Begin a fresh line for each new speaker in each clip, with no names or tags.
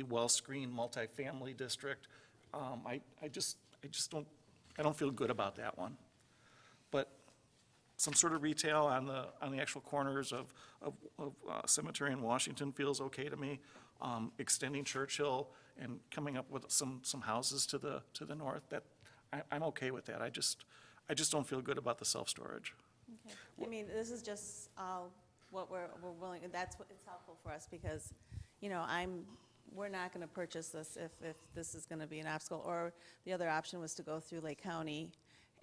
a well-screened multifamily district. Um, I, I just, I just don't, I don't feel good about that one. But some sort of retail on the, on the actual corners of, of, of uh, Cemetery and Washington feels okay to me. Um, extending Churchill and coming up with some, some houses to the, to the north, that, I, I'm okay with that. I just, I just don't feel good about the self-storage.
Okay. I mean, this is just uh, what we're, we're willing, and that's what, it's helpful for us, because, you know, I'm, we're not going to purchase this if, if this is going to be an obstacle. Or the other option was to go through Lake County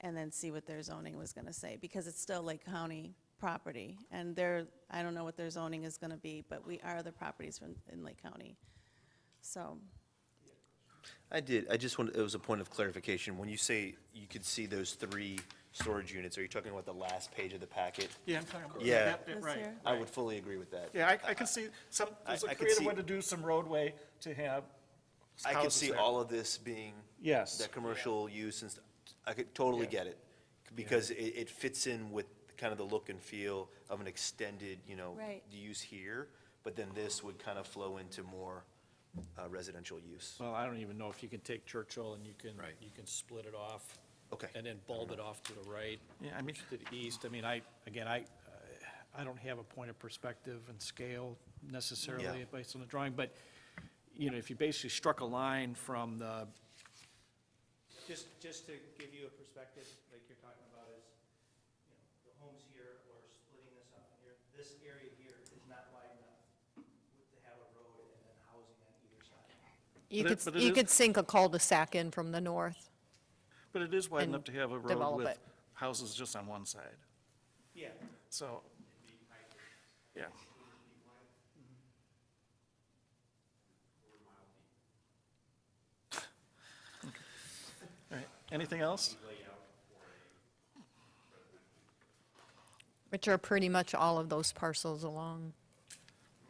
and then see what their zoning was going to say, because it's still Lake County property. And their I don't know what their zoning is going to be, but we are the properties from, in Lake County. So,
I did, I just wanted, it was a point of clarification. When you say you could see those three storage units, are you talking about the last page of the packet?
Yeah, I'm talking about.
Yeah.
Yep, yep,
This
Right.
here?
I would fully agree with that.
Yeah, I, I can see some, there's
I-
a
I could
creative
see-
way to do some roadway to have
I could
houses
see
there.
all of this being.
Yes.
That commercial use and, st- I could totally
Yeah.
get it, because it, it fits in with kind of the look and feel of an extended, you know.
Right.
Use here, but then this would kind of flow into more uh, residential use.
Well, I don't even know if you can take Churchill and you can,
Right.
you can split it off.
Okay.
And then bulb it off to the right.
Yeah, I mean-
To the east. I mean, I, again, I, uh, I don't have a point of perspective and scale necessarily
Yeah.
based on the drawing, but, you know, if you basically struck a line from the,
Just, just to give you a perspective, like you're talking about is, you know, the homes here or splitting this up in here, this area here is not wide enough with- to have a road and then housing on either side.
You
But it-
could,
but it
you
is-
could sink a cul-de-sac in from the north.
But it is wide
and
enough to have a road
develop
with
it.
houses just on one side,
Yeah,
so. Yeah, all right, anything else?
Which are pretty much all of those parcels along.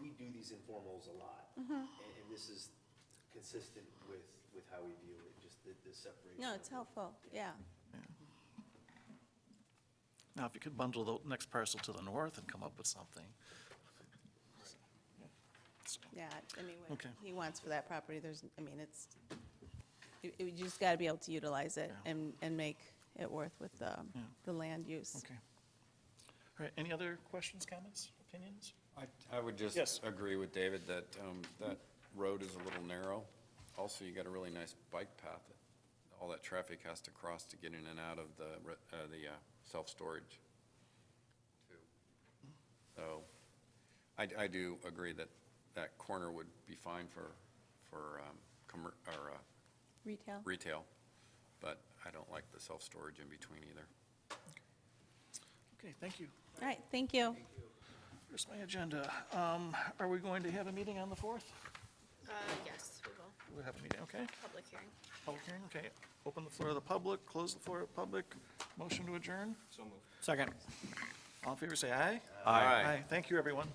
We do these informals a lot, and, and this is consistent with, with how we view it, just the, the separation.
no, it's helpful, yeah.
Now, if you could bundle the next parcel to the north and come up with something,
Yeah, I mean, what
Okay.
he wants for that property, there's, I mean, it's, you you just got to be able to utilize it
Yeah.
and, and make it worth with the, the land use.
okay. All right, any other questions, comments, opinions?
I- I would
Yes.
just agree with David that um, that road is a little narrow. Also, you got a really nice bike path. All that traffic has to cross to get in and out of the, re- uh, the uh, self-storage. too. So I, I do agree that that corner would be fine for, for um, commer- or uh,
Retail?
retail, but I don't like the self-storage in between either.
Okay, thank you.
All right, thank you.
Here's my agenda. Um, Are we going to have a meeting on the 4th?
Uh, yes, we will,
We'll have a meeting, okay?
public hearing.
Public hearing, okay. Open the floor to the public, close the floor to the public. Motion to adjourn?
second.
All in favor, say aye.
Aye.
Thank you, everyone.